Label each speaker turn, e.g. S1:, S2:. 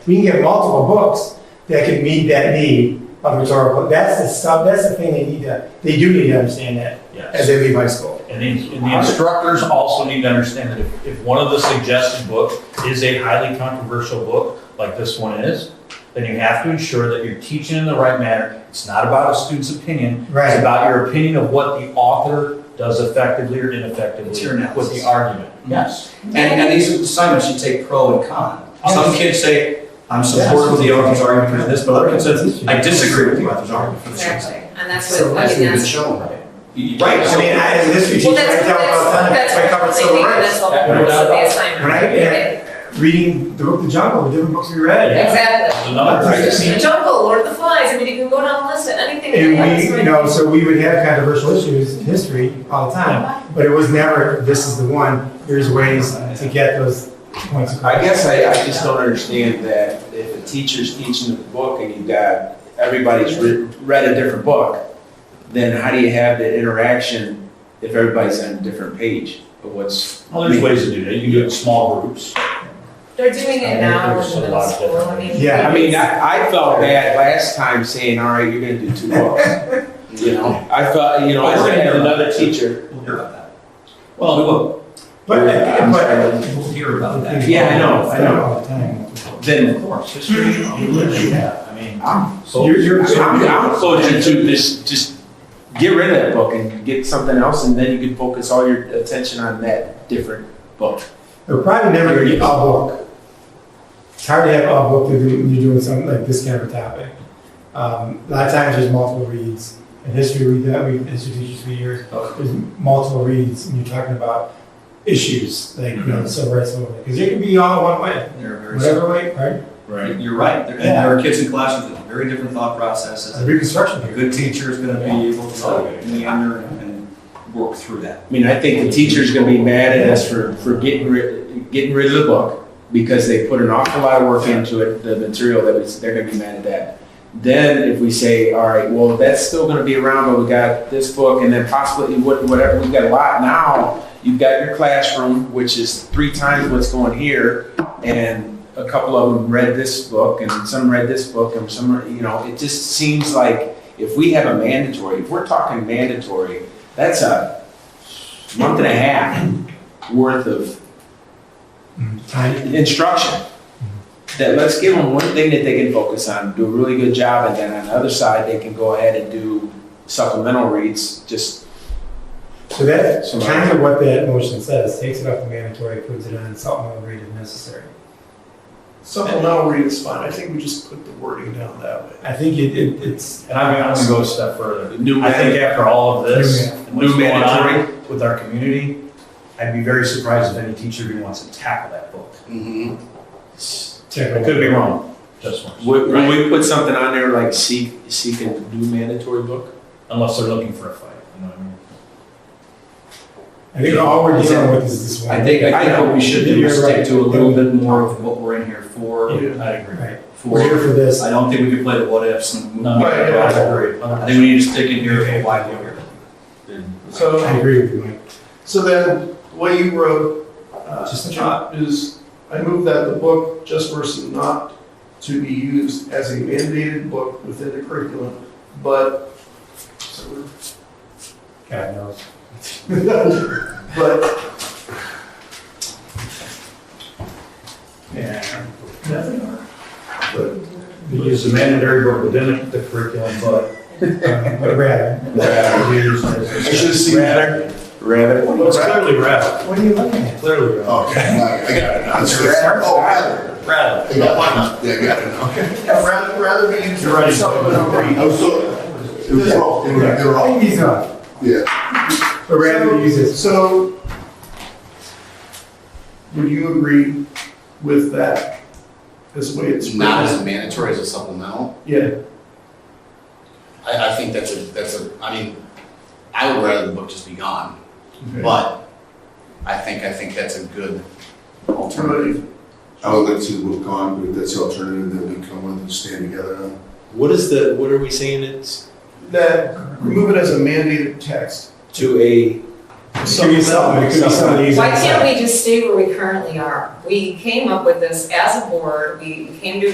S1: We can get multiple books that can meet that need of rhetorical. That's the stuff, that's the thing they need to, they do need to understand that as
S2: Yes.
S1: they leave high school.
S2: And the, and the instructors also need to understand that if, if one of the suggested books is a highly controversial book, like this one is, then you have to ensure that you're teaching in the right manner. It's not about a student's opinion. It's
S1: Right.
S2: about your opinion of what the author does effectively or ineffectively
S3: It's your
S2: with the
S3: analysis.
S2: argument. Yes.
S3: And, and these assignments, you take pro and con. Some kids say, I'm supportive of the author's argument for this, but other kids says, I disagree with the author's argument for this. reason."
S4: Exactly, and that's
S3: So
S4: what, I
S3: that's
S4: mean,
S3: what you've
S4: that's.
S3: shown, right? You- Right,
S1: I
S3: so,
S1: mean, I, as a history
S4: Well,
S1: teacher, I
S4: that's,
S1: tell them all the time,
S4: that's,
S1: that's why I
S4: that's
S1: covered
S4: what they
S1: civil
S4: think,
S1: rights.
S4: that's the whole purpose of the assignment.
S1: When I, yeah, reading the book, The Jungle, the different books we read.
S4: Exactly.
S2: Another
S1: Right.
S2: thing.
S4: The jungle, Lord of the Flies, I mean, you can go down the list of anything. that
S1: And we,
S4: happens.
S1: you know, so we would have controversial issues in history all the time, but it was never, this is the one, here's ways to get those points across.
S5: I guess I, I just don't understand that if a teacher's teaching the book and you've got, everybody's re- read a different book, then how do you have the interaction if everybody's on a different page of what's?
S2: Well, there's ways to do that. You can do it in small groups.
S4: They're doing it now in the middle school, I mean.
S1: Yeah,
S5: I mean, I, I felt bad last time saying, all right, you're gonna do two books. You know, I felt, you know, I had another teacher.
S3: we'll hear about that.
S2: Well,
S3: We will,
S1: But, but.
S3: we'll hear about that.
S5: Yeah, I know, I know.
S1: All the time.
S5: Then
S2: Of course, history, you literally have, I mean.
S5: I'm,
S2: so-
S1: You're, you're.
S5: I'm, I'm closer to this, just get rid of that book and get something else and then you can focus all your attention on that different book.
S1: They're probably never gonna get all book. It's hard to have all book when you're when you're doing something like this kind of a topic. Um, a lot of times there's multiple reads. In history, we, that we, history teachers for years, there's multiple reads and you're talking about issues, like, you know, civil rights movement. Cause it can be all one way,
S3: They're very
S1: whatever way, right?
S5: Right.
S3: You're right, there, and there are kids in classes with very different thought processes.
S1: The Reconstruction
S3: A
S1: period.
S3: good teacher is gonna be able to meander and work through that.
S5: I mean, I think the teacher's gonna be mad at us for, for getting rid, getting rid of the book because they put an awful lot of work into it, the material that was, they're gonna be mad at that. Then if we say, all right, well, that's still gonna be around, but we got this book and then possibly what- whatever, we've got a lot now. You've got your classroom, which is three times what's going here, and a couple of them read this book and some read this book and some, are- you know, it just seems like if we have a mandatory, if we're talking mandatory, that's a month and a half worth of
S1: Time.
S5: instruction. That let's give them one thing that they can focus on, do a really good job, and then on the other side, they can go ahead and do supplemental reads, just,
S1: So that's
S5: So-
S1: kind of what that motion says, takes it off the mandatory, puts it on supplemental read if necessary.
S6: Supplemental read is fine, I think we just put the wording down that way.
S1: I think it, it, it's,
S2: And I'm gonna go a step further.
S5: New
S2: I think after all of this,
S1: New
S2: and what's
S5: new
S2: going
S5: mandatory.
S2: on with our community, I'd be very surprised if any teacher even wants to tackle that book.
S5: Mm-hmm.
S2: I could be wrong, just once,
S5: Would, would we put something on there like seek, seek a new mandatory book?
S2: unless they're looking for a fight, you know what I mean?
S1: I think all we're dealing with is this one.
S3: I think, I think what we should do is
S1: You're right.
S3: stick to a little bit more of what we're in here for,
S2: I agree.
S1: Right. We're here
S3: for,
S1: for this.
S3: I don't think we can play the what ifs and.
S2: No,
S6: Right, yeah,
S2: I
S6: I
S2: agree.
S3: I think we need to stick in here for why we're here.
S1: I
S6: So,
S1: agree with you, Mike.
S6: so then, the way you wrote, uh,
S1: Just the-
S6: not is, I move that the book, just versus not, to be used as a mandated book within the curriculum, but, so we're
S1: God knows.
S6: But.
S1: Yeah.
S6: But
S2: We use the mandatory book within the curriculum, but.
S1: um, But rather,
S5: I should've seen that. Rather.
S2: It's clearly rather,
S1: what are you looking at?
S2: clearly rather.
S7: Okay, I got it now. It's rather. Oh, rather.
S2: Rather.
S7: Yeah, why not? Yeah, I got it now.
S6: yeah, rather, rather be used
S2: Right.
S6: as supplemental
S7: I
S6: read.
S7: was so, it was wrong, it was, it was
S1: Take
S7: wrong.
S1: these off.
S7: Yeah.
S1: But rather use this.
S6: So, would you agree with that? This way it's.
S8: It's not as a mandatory as a supplemental.
S6: Yeah,
S8: I, I think that's a, that's a, I mean, I would rather the book just be gone,
S6: Okay.
S8: but I think, I think that's a good
S6: alternative.
S7: I would like to move on, but if that's the alternative, then we come with and stand together on.
S5: What is the, what are we saying it's?
S6: That, remove it as a mandated text.
S5: To a.
S1: It could be something, it could be some of these.
S4: Why can't we just stay where we currently are? We came up with this as a board, we came to